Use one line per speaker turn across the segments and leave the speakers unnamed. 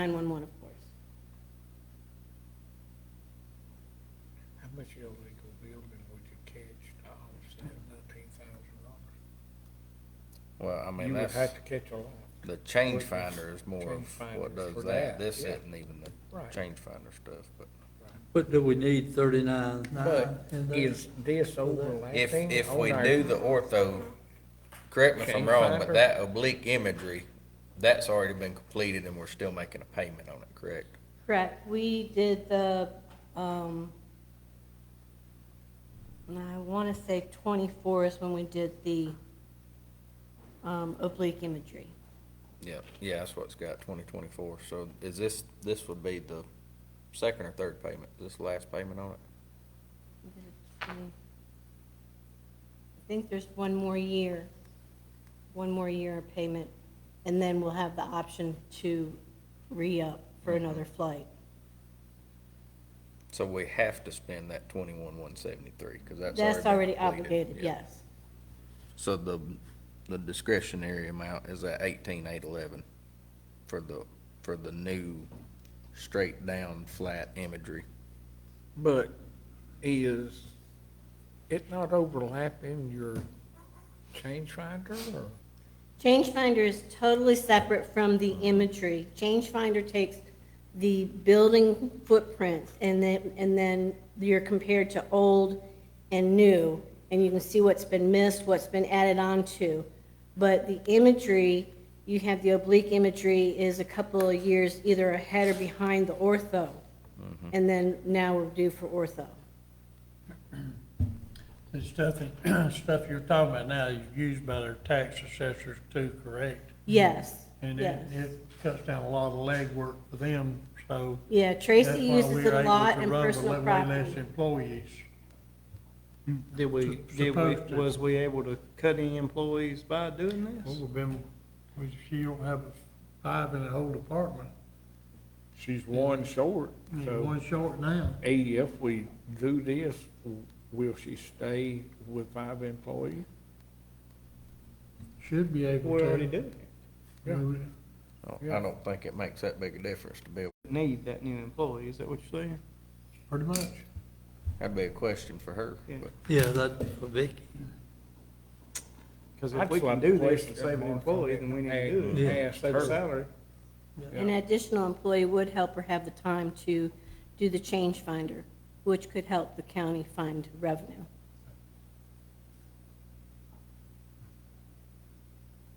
911, of course.
How much illegal building would you catch to offset nineteen thousand dollars?
Well, I mean,
You would
that's,
have to catch a lot.
the change
what is-
finder is more
change
of
finder
what
is
does
for that,
that. This
yeah.
isn't even the
Right.
change finder stuff, but
But do we need thirty-nine nine
But
in there?
is this
if,
overlapping?
if we
on our-
do the ortho, correct me if I'm
Change
wrong, but
finder?
that oblique imagery, that's already been completed and we're still making a payment on it, correct?
Correct. We did the, um, and I want to say 24 is when we did the um, oblique imagery.
Yeah, yeah, that's what's got twenty twenty-four. So is this, this would be the second or third payment, this last payment on it?
I think there's one more year, one more year of payment, and then we'll have the option to re-up for another flight.
So we have to spend that twenty-one one seventy-three, cause that's already.
That's
been
already
completed.
obligated,
Yeah.
yes.
So the, the discretionary amount is at eighteen eight eleven for the, for the new straight down flat imagery.
But is it not overlapping your change finder or?
Changefinder is totally separate from the imagery. Changefinder takes the building footprints and then, and then you're compared to old and new, and you can see what's been missed, what's been added on to. But the imagery, you have the oblique imagery is a couple of years either ahead or behind the ortho. And then now we're due for ortho.
The stuff, that- stuff you're talking about now is used by their tax assessors too, correct?
Yes,
And
yes.
it, it cuts down a lot of legwork for them, so.
Yeah,
that's
Tracy
why
uses
we're
it a
able
lot
to
in
run with
personal
way Less
property.
employees.
Did we,
Sup-
did we,
supposed to.
was we able to cut any employees by doing
Well,
this?
we've been, we, she don't have five in the whole department.
She's one short,
There's
so
one short now.
A, if we do this, will she stay with five employees?
Should be able
We
to.
already did.
Yeah.
We-
I don't-
Yeah.
I don't think it makes that big a difference to be,
Need that new employee, is that what you're saying?
Pretty much.
that'd be a question for her.
Yeah.
but-
Yeah, that's for Vicky.
Because
I'd
if we can
slap
do
the
this
waist
and
up
save an
on
employee,
it
then we need to
and
do it.
ask
Save
her.
the salary.
An additional employee would help her have the time to do the change finder, which could help the county find revenue.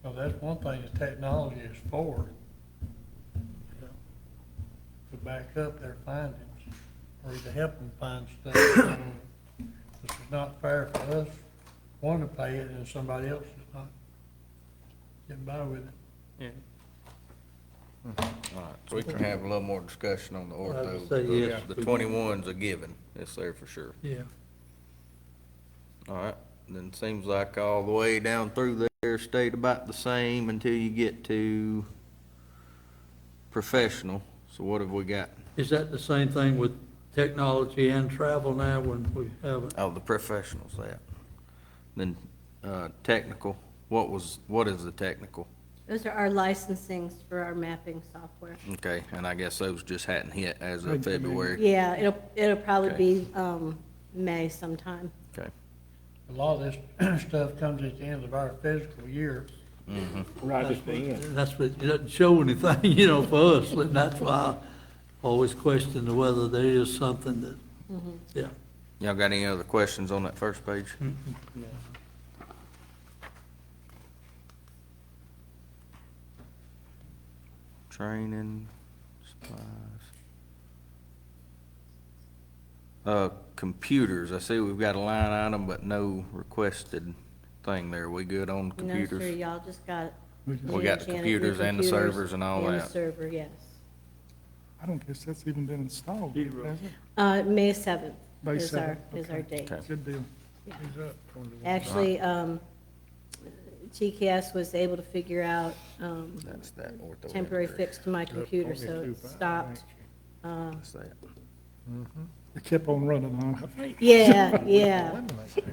Well, that's one thing the technology is for. To back up their findings, or to help them find stuff. This is not fair for us, one to pay it and somebody else is not getting by with it.
Yeah.
All right, so we can have a little more discussion on the
would
ortho.
say
The-
yes.
The twenty-one's a given, it's there for sure.
Yeah.
All right, then seems like all the way down through there stayed about the same until you get to professional. So what have we got?
Is that the same thing with technology and travel now when we haven't?
Oh, the professionals, that. Then, uh, technical, what was, what is the technical?
Those are our licensings for our mapping software.
Okay, and I guess those just hadn't hit as of February.
Yeah, it'll, it'll probably be um, May sometime.
Okay,
A lot of this stuff comes at the end of our fiscal year.
Right
That's what- That's what, it doesn't show anything, you know, for us, and that's why I always question whether there is something that, yeah.
y'all got any other questions on that first page? Training, supplies. Uh, computers, I see we've got a line item, but no requested thing there. We good
No,
on
sir,
computers?
y'all just got.
We got
Janet,
the
your
computers and the
computers
servers and all
and the
that.
server, yes.
I don't guess that's even been installed. has it?
Uh, May 7th
May
is our,
7th,
is our date.
Okay.
Good deal.
He's up on the-
Actually, um, TKS was able to figure out um,
That's that ortho.
temporary
imagery.
fix to my computer, so it stopped. Um,
That's that.
It kept on running on.
Yeah, yeah.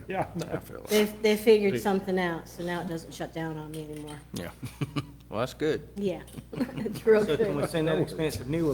Yeah.
I feel like-
They, they figured something out, so now it doesn't shut down on me anymore.
Yeah.
Well, that's good.
Yeah, it's real
So
good.
can we send that expensive new